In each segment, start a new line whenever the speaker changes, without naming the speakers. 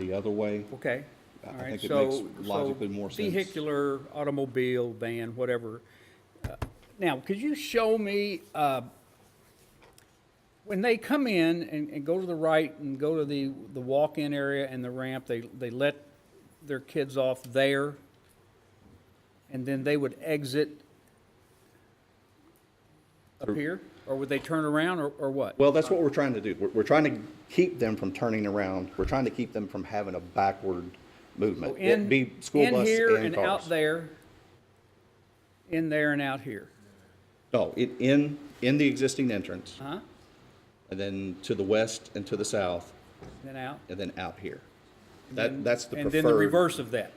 the other way.
Okay,
I- I
all right,
think it
so.
makes
so
logically more sense.
Vehicular, automobile, van, whatever. Uh, Now, could you show me, uh, when they come in and, and go to the right and go to the, the walk-in area and the ramp, they, they let their kids off there? And then they would exit up here? Or would they turn around or, or what?
Well, that's what we're trying to do. We're, we're trying to keep them from turning around. We're trying to keep them from having a backward movement.
In,
It'd be school
in
bus
here
and
and out
cars.
there, in there and out here.
No, it, in, in the existing entrance,
Huh?
and then to the west and to the south,
Then out?
and then out here. That, that's the
And then the
preferred.
reverse of that.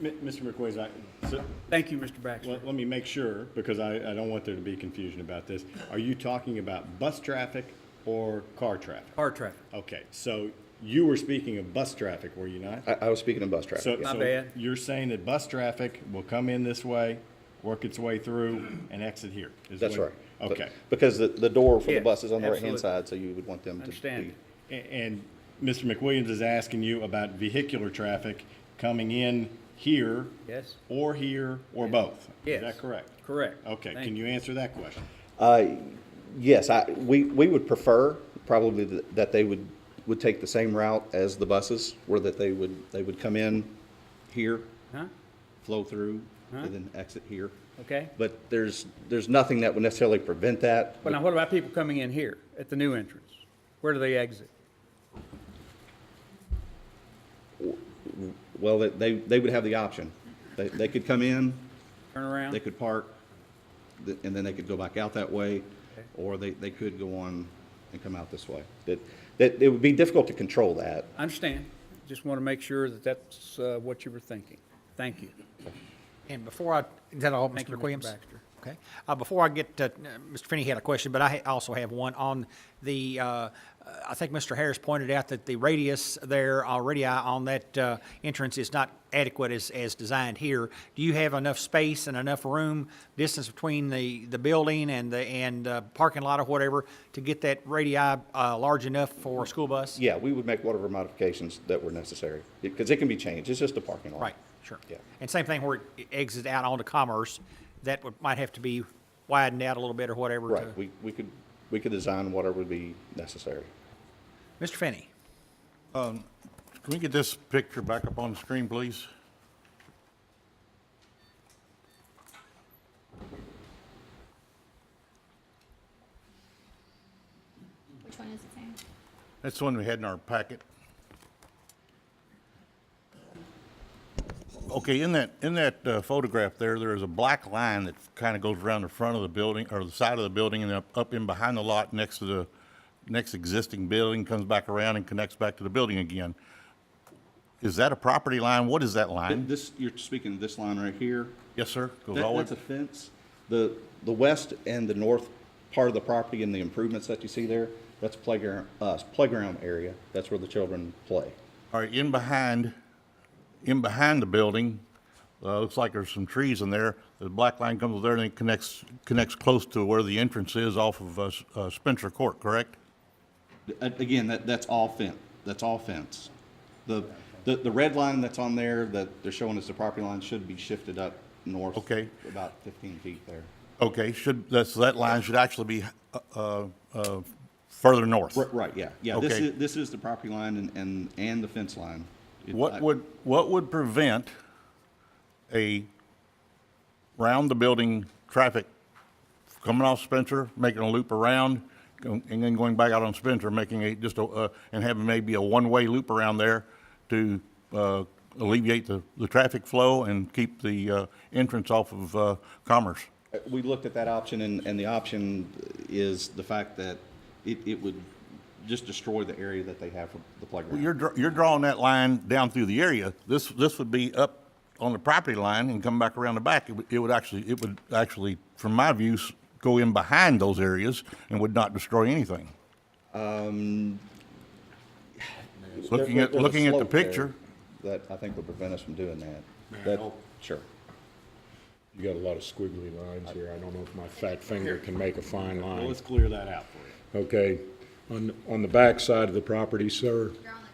Mi- Mr. McQuaid, I, so,
Thank you, Mr. Baxter.
let, let me make sure, because I, I don't want there to be confusion about this. Are you talking about bus traffic or car traffic?
Car traffic.
Okay, so you were speaking of bus traffic, were you not?
I, I was speaking of bus
So,
traffic. yeah.
My
so
bad.
You're saying that bus traffic will come in this way, work its way through, and exit here? is
That's
what-
right.
Okay.
Because the, the door for
Yeah,
the bus is on the right-hand
absolutely.
side, so you would want them to
Understand.
be.
A- And Mr. McWilliams is asking you about vehicular traffic coming in here?
Yes.
Or here, or both?
Yes.
Is that correct?
Correct.
Okay,
Thank
can you answer that question?
Uh, Yes, I, we, we would prefer probably th- that they would, would take the same route as the buses, where that they would, they would come in here,
Huh?
flow through,
Huh?
and then exit here.
Okay.
But there's, there's nothing that would necessarily prevent that.
But now what about people coming in here at the new entrance? Where do they exit?
Well, that they, they would have the option. They, they could come in,
Turn
they
around?
could park, th- and then they could go back out that way, or they, they could go on and come out this way. That, that, it would be difficult to control that.
I understand. Just want to make sure that that's uh, what you were thinking. Thank you.
And before I, is that all,
Thank
Mr.
you, Mr.
McWilliams?
Baxter.
Okay. Uh, Before I get to, uh, Mr. Finney had a question, but I ha- also have one on the, uh, uh, I think Mr. Harris pointed out that the radius there already uh, on that uh, entrance is not adequate as, as designed here. Do you have enough space and enough room, distance between the, the building and the, and uh, parking lot or whatever, to get that radii uh, large enough for a school bus?
Yeah, we would make whatever modifications that were necessary, because it can be changed, it's just a parking lot.
Right, sure.
Yeah.
And same thing where it exits out onto Commerce, that would, might have to be widened out a little bit or whatever to.
Right, we, we could, we could design whatever would be necessary.
Mr. Finney,
Can we get this picture back up on the screen, please?
Which one is it saying?
That's the one we had in our packet. Okay, in that, in that uh, photograph there, there is a black line that kind of goes around the front of the building, or the side of the building, and up, up in behind the lot next to the next existing building, comes back around and connects back to the building again. Is that a property line? What is that line?
This, you're speaking of this line right here,
Yes, sir? Goes
that,
all the way-
that's a fence. The, the west and the north part of the property and the improvements that you see there, that's playground, uh, playground area, that's where the children play.
All right, in behind, in behind the building, uh, looks like there's some trees in there. The black line comes there and it connects, connects close to where the entrance is off of, uh, S- uh, Spencer Court, correct?
A- Again, that, that's all fence, that's all fence. The, the, the red line that's on there that they're showing as the property line should be shifted up north.
Okay.
About fifteen feet there.
Okay, should, that's, that line should actually be, uh, uh, uh, further north.
Right, right, yeah, yeah, this
Okay.
is, this is the property line and, and, and the fence line. It- I-
What would, what would prevent a round-the-building traffic coming off Spencer, making a loop around, and then going back out on Spencer, making a, just a, uh, and having maybe a one-way loop around there to uh, alleviate the, the traffic flow and keep the uh, entrance off of uh, Commerce?
We looked at that option and, and the option is the fact that it, it would just destroy the area that they have for the
Well, You're,
playground.
dr- you're drawing that line down through the area. This, this would be up on the property line and come back around the back. It would, it would actually, it would actually, from my views, go in behind those areas and would not destroy anything. Looking
There-
at,
Um, there's a
looking at the
slope there
picture,
That I think would prevent us from doing that. That- Sure.
You got a lot of squiggly lines here. I don't know if my fat finger can make a fine
Well,
line.
let's clear that out for you.
Okay, on, on the back side of the property, sir,
You're on the